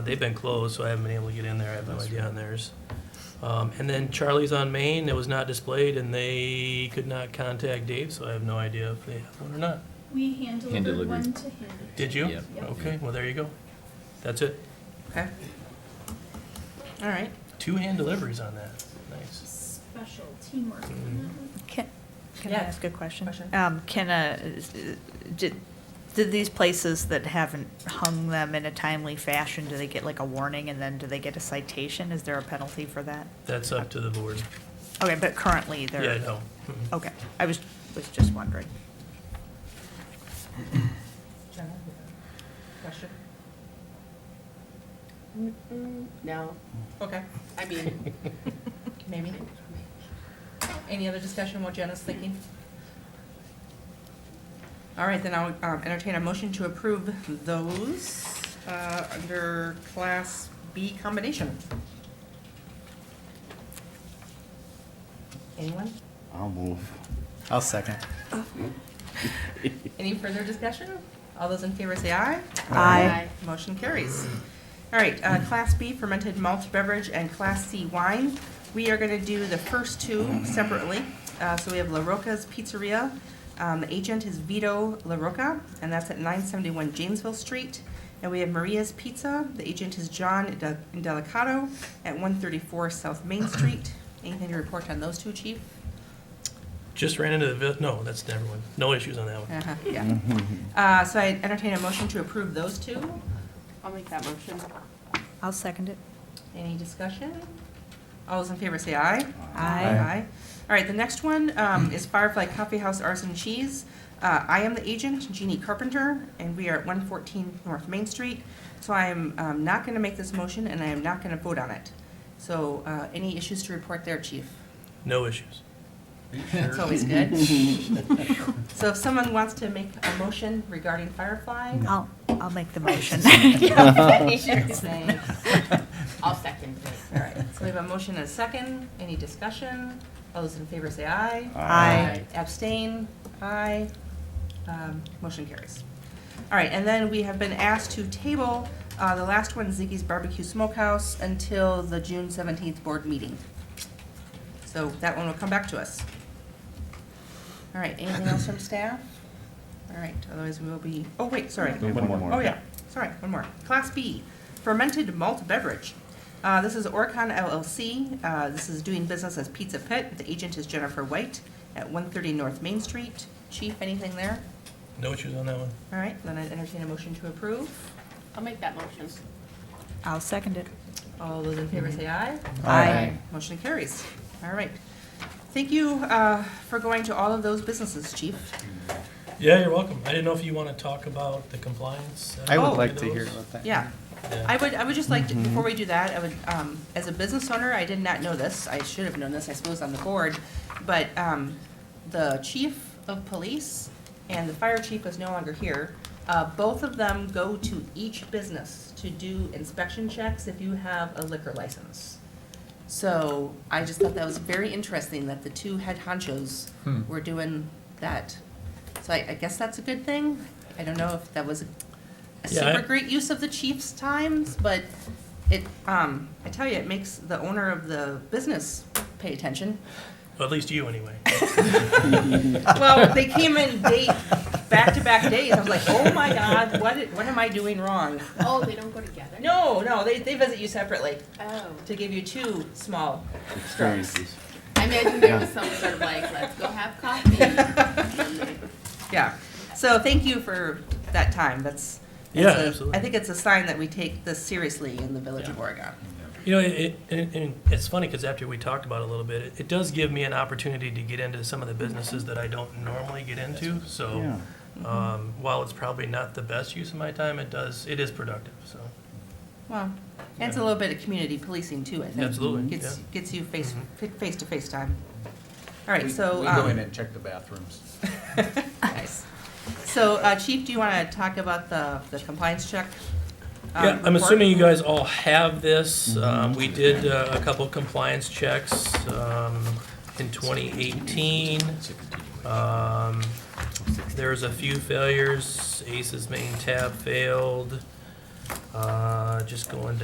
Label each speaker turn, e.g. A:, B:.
A: They've been closed, so I haven't been able to get in there. I have no idea on theirs. Um, and then Charlie's on Main, it was not displayed, and they could not contact Dave, so I have no idea if they have one or not.
B: We hand
C: Hand
B: delivered
C: delivered.
B: one to him.
A: Did you?
C: Yep.
B: Yep.
A: Okay, well, there you go. That's it.
D: Okay. All right.
A: Two hand deliveries on that. Nice.
B: Special teamwork.
C: Mm-hmm.
E: Can can I
D: Yeah.
E: ask a question?
D: Question.
E: Um, Can, uh, is- is- did did these places that haven't hung them in a timely fashion, do they get like a warning and then do they get a citation? Is there a penalty for that?
A: That's up to the board.
E: Okay, but currently
A: Yeah,
E: they're,
A: no. Mhm.
E: okay, I was, was just wondering.
D: Jenna, you have a Question?
F: Mm, No,
D: Okay.
F: I mean,
D: Maybe. Any other discussion while Jenna's thinking? All right, then I'll um, entertain a motion to approve those uh, under Class B combination. Anyone?
C: I'll move. I'll second.
D: Any further discussion? All those in favor say aye.
F: Aye.
D: Motion carries. All right, uh, Class B fermented malt beverage and Class C wine. We are going to do the first two separately. Uh, So we have La Roca's Pizzeria. Um, The agent is Vito La Roca, and that's at 971 Jamesville Street. And we have Maria's Pizza. The agent is John De- Delicato at 134 South Main Street. Anything to report on those two, chief?
A: Just ran into the, vi- no, that's never one. No issues on that one.
D: Uh-huh, Yeah.
G: Mm-hmm.
D: Uh, So I entertain a motion to approve those two.
F: I'll make that motion.
E: I'll second it.
D: Any discussion? All those in favor say aye.
E: Aye.
D: Aye. All right, the next one um, is Firefly Coffee House Arson Cheese. Uh, I am the agent, Jeannie Carpenter, and we are at 114 North Main Street. So I am um, not going to make this motion, and I am not going to vote on it. So uh, any issues to report there, chief?
A: No issues.
D: That's always good. So if someone wants to make a motion regarding Firefly?
E: I'll, I'll make the motion.
D: Thanks.
F: I'll second it.
D: All right, so we have a motion and a second. Any discussion? All those in favor say aye.
E: Aye.
D: Abstain? Aye. Um, Motion carries. All right, and then we have been asked to table uh, the last one, Ziggy's Barbecue Smokehouse, until the June 17th board meeting. So that one will come back to us. All right, anything else from staff? All right, otherwise we will be, oh, wait, sorry.
C: One more.
D: Oh, yeah, sorry, one more. Class B, fermented malt beverage. Uh, This is Orcon LLC. Uh, This is doing business as Pizza Pit. The agent is Jennifer White at 130 North Main Street. Chief, anything there?
A: No issues on that one.
D: All right, then I entertain a motion to approve.
F: I'll make that motion.
E: I'll second it.
D: All those in favor say aye.
C: Aye.
D: Motion carries. All right. Thank you uh, for going to all of those businesses, Chief.
A: Yeah, you're welcome. I didn't know if you want to talk about the compliance.
C: I
D: Oh.
C: would like to hear about that.
D: Yeah.
A: Yeah.
D: I would, I would just like, to- before we do that, I would, um, as a business owner, I did not know this, I should have known this, I suppose, on the board, but, um, the chief of police and the fire chief is no longer here. Uh, both of them go to each business to do inspection checks if you have a liquor license. So I just thought that was very interesting that the two head honchos
C: Hmm.
D: were doing that. So I, I guess that's a good thing. I don't know if that was a
A: Yeah, I-
D: super great use of the chief's times, but it, um, I tell you, it makes the owner of the business pay attention.
A: Well, at least you, anyway.
D: Well, they came in date, back-to-back days. I was like, oh my God, what, i- what am I doing wrong?
F: Oh, they don't go together?
D: No, no, they, they visit you separately
F: Oh.
D: to give you two small strokes.
C: Experiences.
F: I imagine there was some sort of like, let's go have coffee.
D: Yeah, so thank you for that time, that's.
A: Yeah,
D: that's a-
A: absolutely.
D: I think it's a sign that we take this seriously in the village of Oregon.
A: You know, it, it, and it's funny because after we talked about it a little bit, it, it does give me an opportunity to get into some of the businesses that I don't normally get into. So,
C: Yeah.
A: um, while it's probably not the best use of my time, it does, it is productive, so.
D: Well, and it's a little bit of community policing too, I think.
A: Absolutely,
D: Gets,
A: yeah. Mm-hmm.
D: gets you face, face to face time. All right,
G: We-
D: so.
G: We go
D: um,
G: in and check the bathrooms.
D: Nice. So, uh, Chief, do you want to talk about the, the compliance check? um,
A: Yeah, I'm
D: report?
A: assuming you guys all have this. Um, we did uh, a couple compliance checks, um, in twenty eighteen. Um, there's a few failures. Ace's main tab failed. Uh, Just going